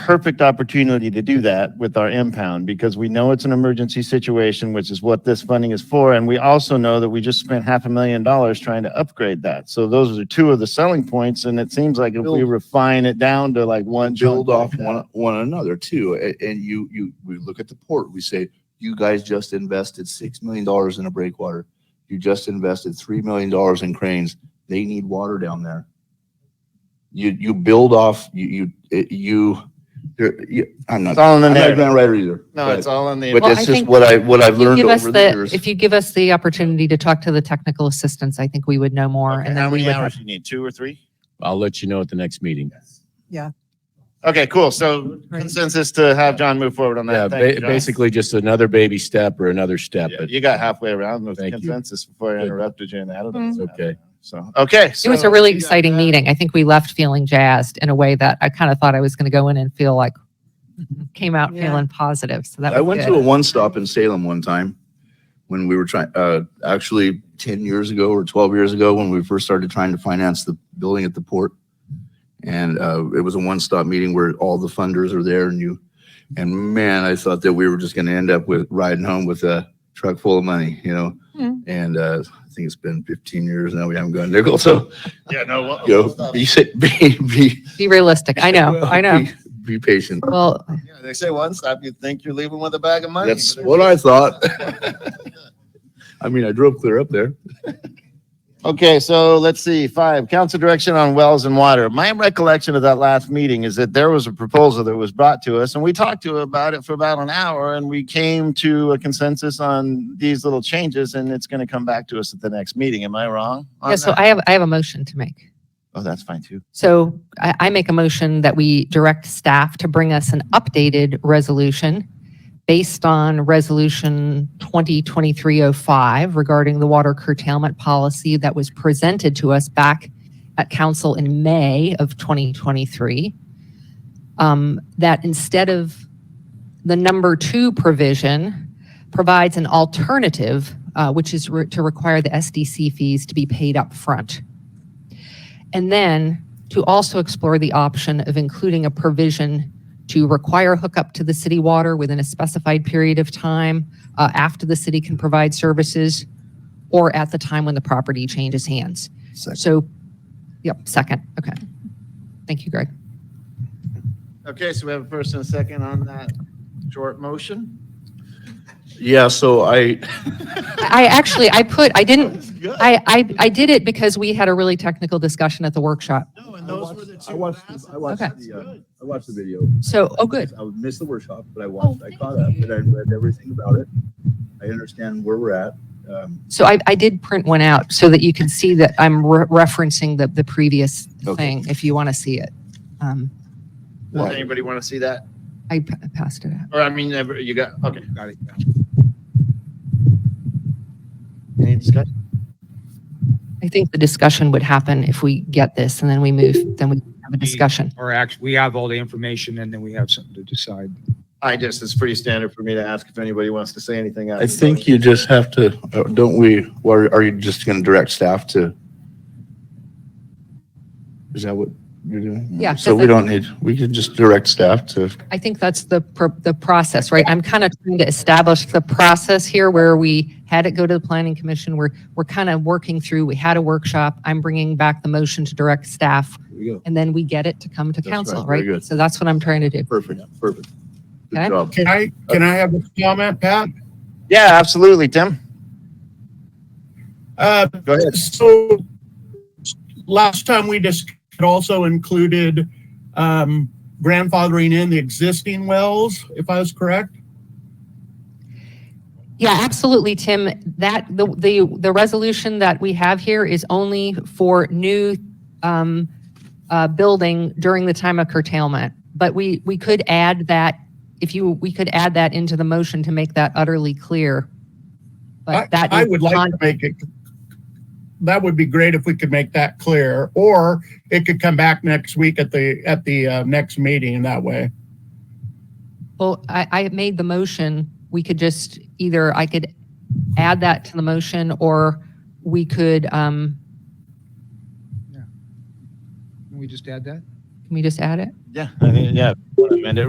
perfect opportunity to do that with our impound because we know it's an emergency situation, which is what this funding is for. And we also know that we just spent half a million dollars trying to upgrade that. So those are two of the selling points. And it seems like if we Build. refine it down to like one. build off chunk like one, one another too. A- And you, you, we look at the port, we say, you guys just invested six million dollars in a breakwater. You just invested three million dollars in cranes. They need water down there. You, you build off, you, you, it- you, there, you, that. I'm not, It's all in the I'm not a narrative. grant writer either. No, but- it's all in the. But Well, that's I just think what I, what I've learned Give us over the the, years. if you give us the opportunity to talk to the technical assistants, I think we would know more Okay, and How then we many would. hours you need? Two or three? I'll let you know at the next meeting. Okay, cool. So consensus to have John move forward on Yeah, that. ba- Thank you, John. basically just another baby step or another step, Yeah, but You got halfway around with Thank you. consensus before I Good. interrupted you and added it. Mm. It's okay. So, okay. It was a really exciting meeting. I think we left feeling jazzed in a way that I kind of thought I was going to go in and feel like, came out Yeah. feeling positive. So that I was went to a good. one stop in Salem one time when we were trying, uh, actually ten years ago or twelve years ago, when we first started trying to finance the building at the port. And, uh, it was a one stop meeting where all the funders are there and you, and man, I thought that we were just gonna end up with riding home with a truck full of money, you know? Hmm. And, uh, I think it's been fifteen years now, we haven't gone nickel, so, Yeah, no. we'll- you know, be, sa- be, be. Be realistic. I know, I know. be- Be patient. Well, Yeah, They say one stop, you think you're leaving with a bag of money. That's what I thought. I mean, I drove clear up there. Okay, so let's see, five, council direction on wells and water. My recollection of that last meeting is that there was a proposal that was brought to us and we talked to about it for about an hour and we came to a consensus on these little changes and it's going to come back to us at the next meeting. Am I wrong? on yeah, so that? I have, I have a motion to make. Oh, that's fine too. So I, I make a motion that we direct staff to bring us an updated resolution based on Resolution 2023-05 regarding the water curtailment policy that was presented to us back at council in May of 2023. Um, That instead of the number two provision provides an alternative, uh, which is re- to require the SDC fees to be paid upfront. And then to also explore the option of including a provision to require hookup to the city water within a specified period of time uh, after the city can provide services or at the time when the property changes hands. So, yep, second, okay. Thank you, Greg. Okay, so we have a first and a second on that short motion. Yeah, so I, I I actually, I put, I didn't, Good. Hmm. I, I, I did it because we had a really technical discussion at the workshop. No, I and those were the watched, I two watched, passes. I watched Okay. the, uh, I watched the video. So, oh, good. I missed the workshop, but I watched, I caught up, and I read everything about it. I understand where we're at. Um, So I, I did print one out so that you can see that I'm re- referencing the, the previous Okay. thing, if you want to see it. Um, Does anybody want to see that? I p- I passed it out. Or I mean, ever- you got, okay. Got it. Any discussion? I think the discussion would happen if we get this and then we move, then we have a discussion. Or act, we have all the information and then we have something to decide. I just, it's pretty standard for me to ask if anybody wants to say anything. I think you just have to, uh, don't we, or are you just gonna direct staff to? Is that what you're doing? Yeah, 'cause So we it- don't need, we can just direct staff to, I think that's the, pro- the process, right? I'm kind of trying to establish the process here where we had it go to the planning commission. We're, we're kind of working through, we had a workshop. I'm bringing back the motion to direct staff there you go. and then we get it to come to That's right, council, very right? good. So that's what I'm trying to do. Perfect, perfect. Good Okay. job. Can I, can I have a comment, Pat? Yeah, absolutely, Tim. Uh, Go ahead. so last time we just also included, um, grandfathering in the existing wells, if I was correct? Yeah, absolutely, Tim. That, the, the, the resolution that we have here is only for new, um, uh, building during the time of curtailment. But we, we could add that, if you, we could add that into the motion to make that utterly clear. I, But that. I is would like con- to make it, that would be great if we could make that clear, or it could come back next week at the, at the, uh, next meeting that way. Well, I, I made the motion. We could just, either I could add that to the motion or we could, um, Can we just add that? can we just add it? Yeah, I think- yeah. Amend it